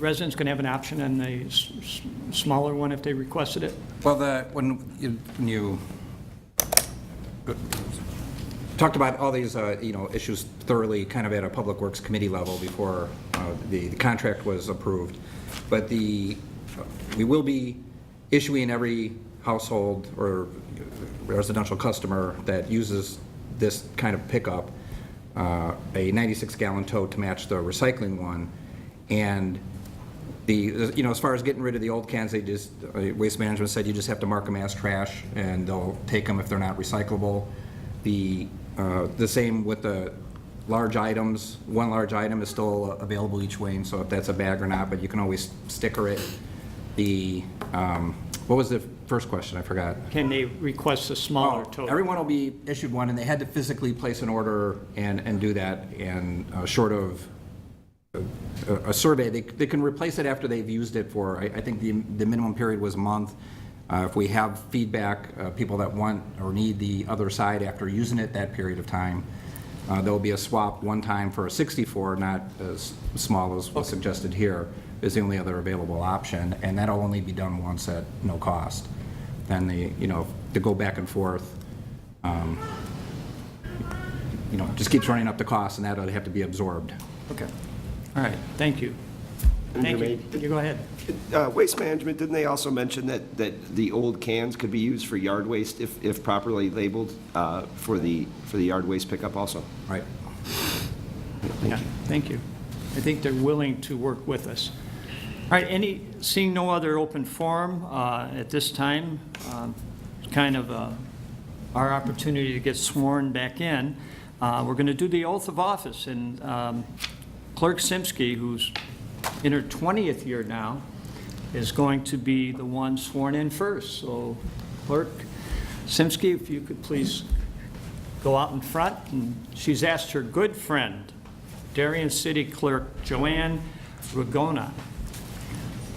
Residents can have an option on the s- s- smaller one if they requested it. Well, the, when you, when you talked about all these, uh, you know, issues thoroughly, kind of at a Public Works Committee level before uh, the the contract was approved, but the, we will be issuing every household or residential customer that uses this kind of pickup uh, a 96-gallon tow to match the recycling one, and the, you know, as far as getting rid of the old cans, they just, uh, Waste Management said you just have to mark them as trash, and they'll take them if they're not recyclable. The, uh, the same with the large items, one large item is still available each way, and so if that's a bag or not, but you can always sticker it. The, um, what was the first question? I forgot. Oh, Can they request a smaller total? Everyone will be issued one, and they had to physically place an order and, and do that, and uh, short of uh, a survey, they, they can replace it after they've used it for, I, I think the, the minimum period was a month. Uh, If we have feedback, uh, people that want or need the other side after using it that period of time, uh, there'll be a swap one time for a 64, not as small as was suggested here, is the only other available option, and that'll only be done once at no cost. Then the, you know, to go back and forth, um, you know, just keeps running up the cost, and that'll have to be absorbed. Okay. All right, thank you. Thank you. You go ahead. Uh, Waste management, didn't they also mention that, that the old cans could be used for yard waste if, if properly labeled uh, for the, for the yard waste pickup also? Right. Yeah, thank you. I think they're willing to work with us. All right, any, seeing no other open forum uh, at this time, um, it's kind of uh, our opportunity to get sworn back in, Uh, we're going to do the oath of office, and um, Clerk Simsky, who's in her 20th year now, is going to be the one sworn in first. So Clerk Simsky, if you could please go out in front, and she's asked her good friend, Darien City Clerk Joanne Ragona,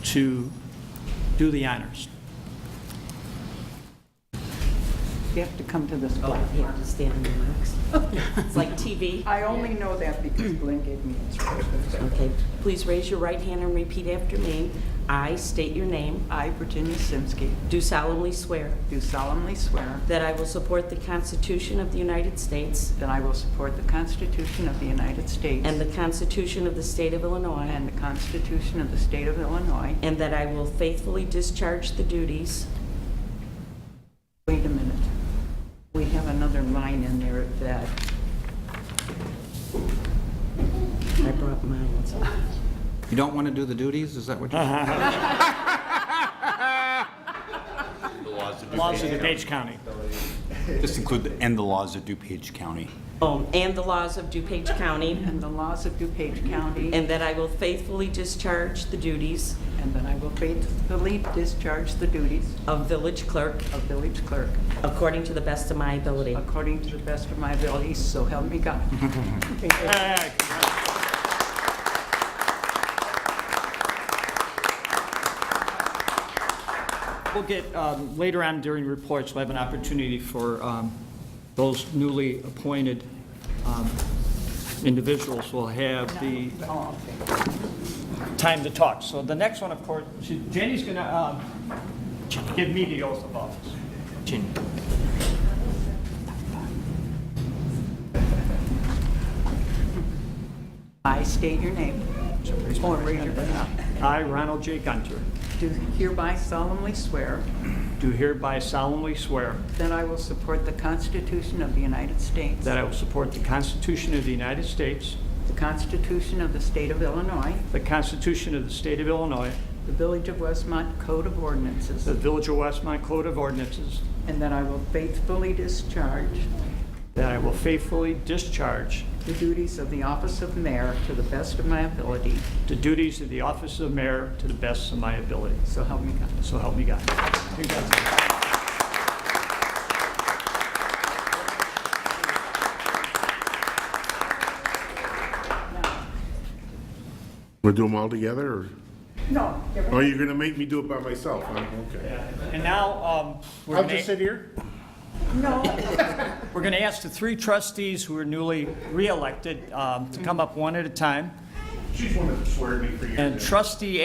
to do the honors. You have to come to this black You have to stand in the box. It's like TV. I only know that because Glenn gave me instructions. Okay, please raise your right hand and repeat after me. I state your name, I, Virginia Simsky, do solemnly swear do solemnly swear that I will support the Constitution of the United States that I will support the Constitution of the United States and the Constitution of the State of Illinois, and the Constitution of the State of Illinois. and that I will faithfully discharge the duties. Wait a minute. We have another line in there that, I brought mine. You don't want to do the duties, is that what you? Laws of DuPage County. Just include the, and the laws of DuPage County. Oh, and the laws of DuPage County, and the laws of DuPage County, and that I will faithfully discharge the duties and that I will faithfully discharge the duties of village clerk of village clerk according to the best of my ability. according to the best of my abilities, so help me God. We'll get, um, later on during reports, we'll have an opportunity for um, those newly appointed um, individuals will have the time to talk. So the next one, of course, she- Jenny's going to give me the oath of office. I state your name. Or raise your hand. I, Ronald J. Gunter, Do hereby solemnly swear do hereby solemnly swear that I will support the Constitution of the United States, that I will support the Constitution of the United States, the Constitution of the State of Illinois, the Constitution of the State of Illinois, the Village of Westmont Code of Ordinances, the Village of Westmont Code of Ordinances, and that I will faithfully discharge that I will faithfully discharge the duties of the office of mayor to the best of my ability, the duties of the office of mayor to the best of my ability. so help me God. So help me God. Want to do them all together, or? No, Oh, you're going to make me do it by myself, huh? Okay. And now, um, we're I'll gonna- just sit here? We're going to ask the three trustees who are newly re-elected um, to come up one at a time. She's one that sweared me for years. And trustee